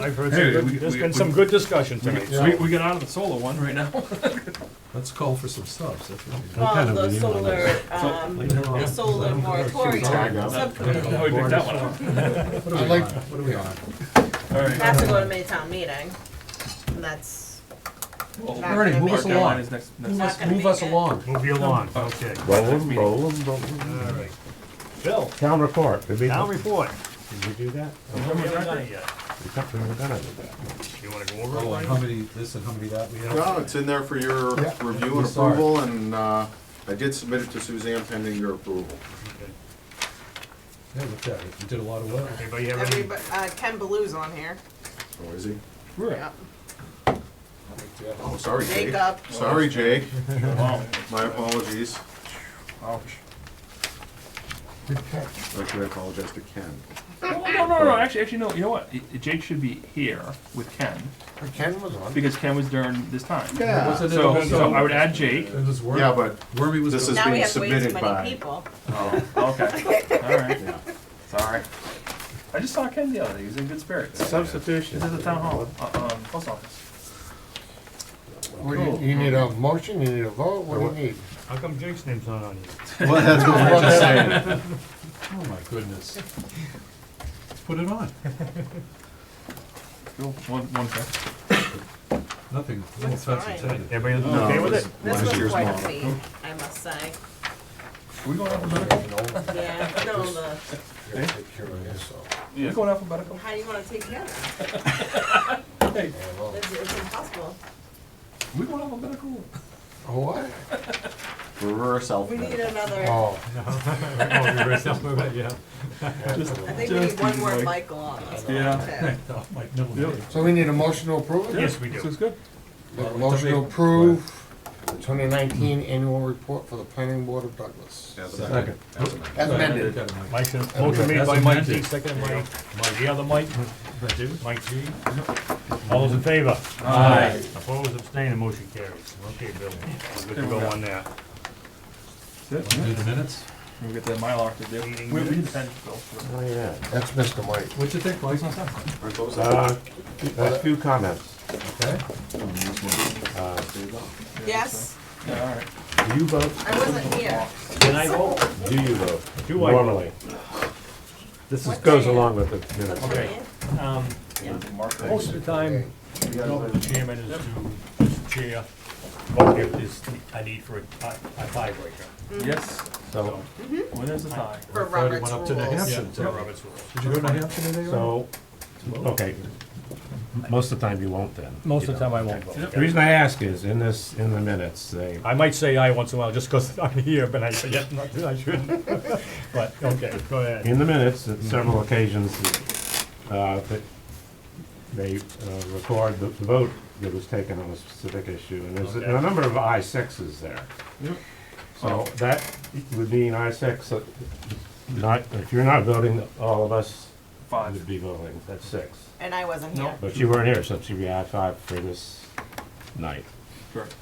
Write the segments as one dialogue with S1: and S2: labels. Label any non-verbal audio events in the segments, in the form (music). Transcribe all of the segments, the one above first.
S1: I've heard
S2: Hey,
S1: some
S2: we-
S1: good, there's
S2: we-
S1: been
S2: we-
S1: some good discussion tonight. so-
S2: We, we got out of the solar one right now. (laughs)
S3: Let's call for some subs, that's what we do.
S4: Well, the solar, um,
S3: Later on.
S4: the solar moratorium subcommittee.
S2: Oh, (laughs) we picked that one up.
S3: What are we on? What are we on?
S2: All right.
S4: That's to go to May town meeting, and that's,
S2: Well,
S4: Back.
S3: Ernie, move
S4: Mark
S2: Mark,
S3: us
S2: that line
S3: along.
S2: is next,
S3: Move
S2: next.
S4: Not
S3: us,
S4: gonna
S3: move us
S4: make it.
S3: along.
S5: Move you along, okay.
S6: Roll
S2: Next
S6: 'em,
S2: meeting.
S6: roll 'em, roll 'em.
S5: All right. Bill,
S6: Town report, did we,
S5: town
S6: did
S5: report.
S6: we do that?
S5: We haven't done it yet.
S6: We thought we were gonna do that.
S5: You wanna go over it?
S3: Oh, and how many this and how many that we have?
S7: No, it's in there for your
S3: Yeah.
S7: review
S3: We
S7: and
S3: saw it.
S7: approval, and uh, I did submit it to Suzanne pending your approval.
S3: Yeah, look at it, you did a lot of well.
S5: Anybody have any?
S4: everybody, uh, Ken Baloo's on here.
S7: Oh, is he?
S4: Yep.
S7: Oh, sorry, Jake.
S4: Jacob,
S7: Sorry, Jake.
S2: Wow.
S7: My apologies.
S2: Ouch.
S7: Actually, I apologize to Ken.
S2: No, Oh, no, no, no, actually, actually, no, you know what? I- Jake should be here with Ken,
S6: Ken was on.
S2: because Ken was during this time.
S7: Yeah,
S3: Wasn't it
S2: So,
S3: about-
S2: so I would add Jake.
S3: It was Worm-
S7: yeah, but,
S3: Wormy was.
S7: This
S3: the-
S7: is-
S4: now we
S7: being
S4: have way too
S7: submitted by-
S4: many people.
S2: Oh, okay, (laughs) all right,
S7: yeah.
S2: sorry. I just saw Ken the other day, he was in good spirits.
S6: Substitution.
S2: He's at the town hall, uh, um, post office.
S8: What do you, you need a motion, you need a vote, what do you need?
S5: How come Jake's name's not on here?
S7: (laughs) Well, that's what we're just saying.
S3: Oh, my goodness. Let's put it on.
S2: Cool, one, one sec.
S3: Nothing, no
S4: Looks
S3: offense
S4: fine.
S3: intended.
S5: Everybody
S7: No,
S5: okay with it?
S4: This
S7: Last
S4: was
S7: year's
S4: quite a
S7: model.
S4: feat, I must say,
S2: We going alphabetical?
S7: (laughs)
S4: yeah, no, the,
S8: Take care of yourself.
S2: We going alphabetical?
S4: how do you wanna take care of
S7: (laughs)
S2: Hey,
S4: that? It's, it's impossible.
S2: we going alphabetical?
S8: Oh, What?
S7: Reverse
S4: We need
S7: alphabet.
S4: another, (laughs)
S8: Oh,
S5: Oh, we raised up, yeah.
S2: Just,
S4: I think we need
S2: Just
S4: one more
S2: like-
S4: Michael on this one,
S2: Yeah.
S4: too.
S3: Oh, my middle
S2: Yep.
S3: name.
S8: so we need a motion to approve it?
S5: Yes, we
S2: this is
S5: do.
S2: good.
S8: Make a Motion to approve the twenty nineteen annual report for the planning board of Douglas.
S7: As
S6: Second.
S8: As amended.
S3: Got it, Mike.
S5: Mike's, motion made
S3: That's
S5: by
S3: a Mike
S5: Mike,
S3: thing.
S5: second by, Mike. the other Mike. Mike G. All those in favor?
S2: Aye.
S5: Opposed, abstaining, motion carries. Okay, Bill, we're good to go on that.
S2: That's
S3: Do
S2: it.
S3: the minutes?
S2: We get the Mylar to do.
S5: Meeting
S2: We, we
S5: minutes.
S2: depend, Bill.
S6: Oh, yeah.
S8: That's Mr. Mike.
S3: What'd you think, Mike?
S6: Uh, a few comments.
S3: Okay.
S4: Yes,
S2: Yeah, all right.
S6: Do you vote?
S4: I wasn't here.
S6: Can I vote? Do you vote?
S5: Do I vote?
S6: Normally. This is, goes along with the minutes.
S5: Okay. Um, most of the time, the job of the chairman is to just chair, or if there's a need for a tie- a tiebreaker.
S2: Yes,
S6: So,
S2: winners the tie.
S4: For
S3: Friday went
S4: Robert's
S3: up to New
S4: rules.
S3: Hampshire.
S5: Yeah,
S3: Absolutely.
S5: Robert's rules.
S3: Did you go to Hampton today? Ernie?
S6: so, okay. Most of the time you won't then.
S5: Most of
S6: you
S5: the time
S6: know.
S5: I won't vote.
S6: The reason I ask is, in this, in the minutes, they,
S5: I might say aye once in a while just because (laughs) I'm here, but I forget, not that I shouldn't. (laughs) But, okay, go ahead.
S6: in the minutes, at several occasions, uh, that they uh, record the the vote that was taken on a specific issue, and there's
S5: Okay.
S6: a number of I sixes there. So that would mean I six, uh, not, if you're not voting, all of us
S2: Five.
S6: would be voting, that's six.
S4: And I wasn't here.
S6: But you weren't here, so it should be I five for this night.
S2: Correct.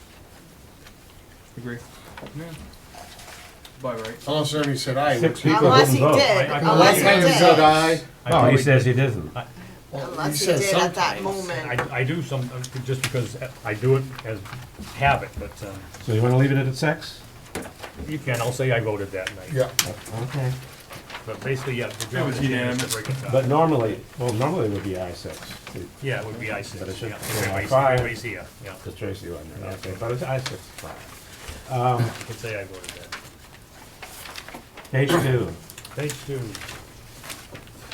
S2: Agree. Yeah. By right.
S8: Unless Ernie said aye,
S6: Six
S8: which.
S6: people
S4: Unless he
S6: didn't vote.
S4: did,
S5: I- I-
S4: unless he
S8: Ernie said
S4: did,
S8: aye.
S5: I
S6: Oh, he
S5: probably-
S6: says he didn't.
S8: Well,
S4: unless he
S8: said
S4: did at that
S8: something.
S4: moment.
S5: I, I do some, uh, just because I do it as habit, but um,
S6: So you wanna leave it at six?
S5: you can, I'll say I voted that night.
S8: Yeah,
S6: Okay.
S5: But basically, yeah. the
S2: It was
S5: job of the chairman is to
S2: unanimous.
S5: bring it up.
S6: But normally, well, normally it would be I six,
S5: Yeah, it would be I
S6: But
S5: six,
S6: it should
S5: yeah,
S6: be like
S5: everybody's,
S6: five.
S5: everybody's here, yeah,
S6: the Tracy one, there, okay, but it's I six five.
S5: let's say I voted that.
S6: Page two.
S5: Page two,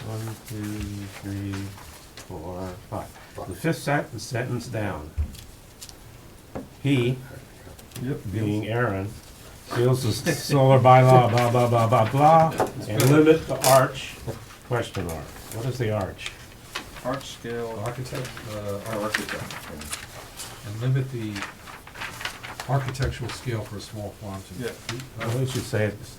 S6: One, two, three, four, five. The fifth sentence, sentence down. He, being Aaron, feels the solar bylaw, blah, blah, blah, blah, blah, and limit the arch, question mark. What is the arch?
S2: Arch scale.
S3: Architect, uh,
S7: Our architect.
S3: and limit the architectural scale for a small farm to.
S2: Yeah.
S6: I
S3: Uh,
S6: think you say it's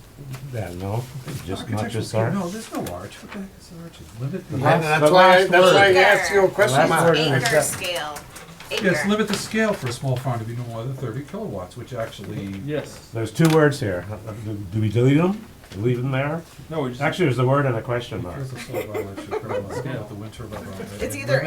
S6: that, no? Just, not
S3: Architectural
S6: just
S3: scale,
S6: arch?
S3: no, there's no arch, what the heck is arch, limit the.
S8: And
S6: the
S8: that's why,
S6: last
S8: that's why I
S4: word.
S8: asked you a question
S6: Last
S8: mark.
S6: word.
S4: Acre scale,
S3: Yes,
S4: acre.
S3: limit the scale for a small farm to be no more than thirty kilowatts, which actually,
S2: Yes.
S6: There's two words here. Do- Do we delete them? Leave them there?
S2: No, we just.
S6: Actually, there's a word and a question mark.
S3: here's a solar arch, you put on the- the wind turbine.
S4: It's either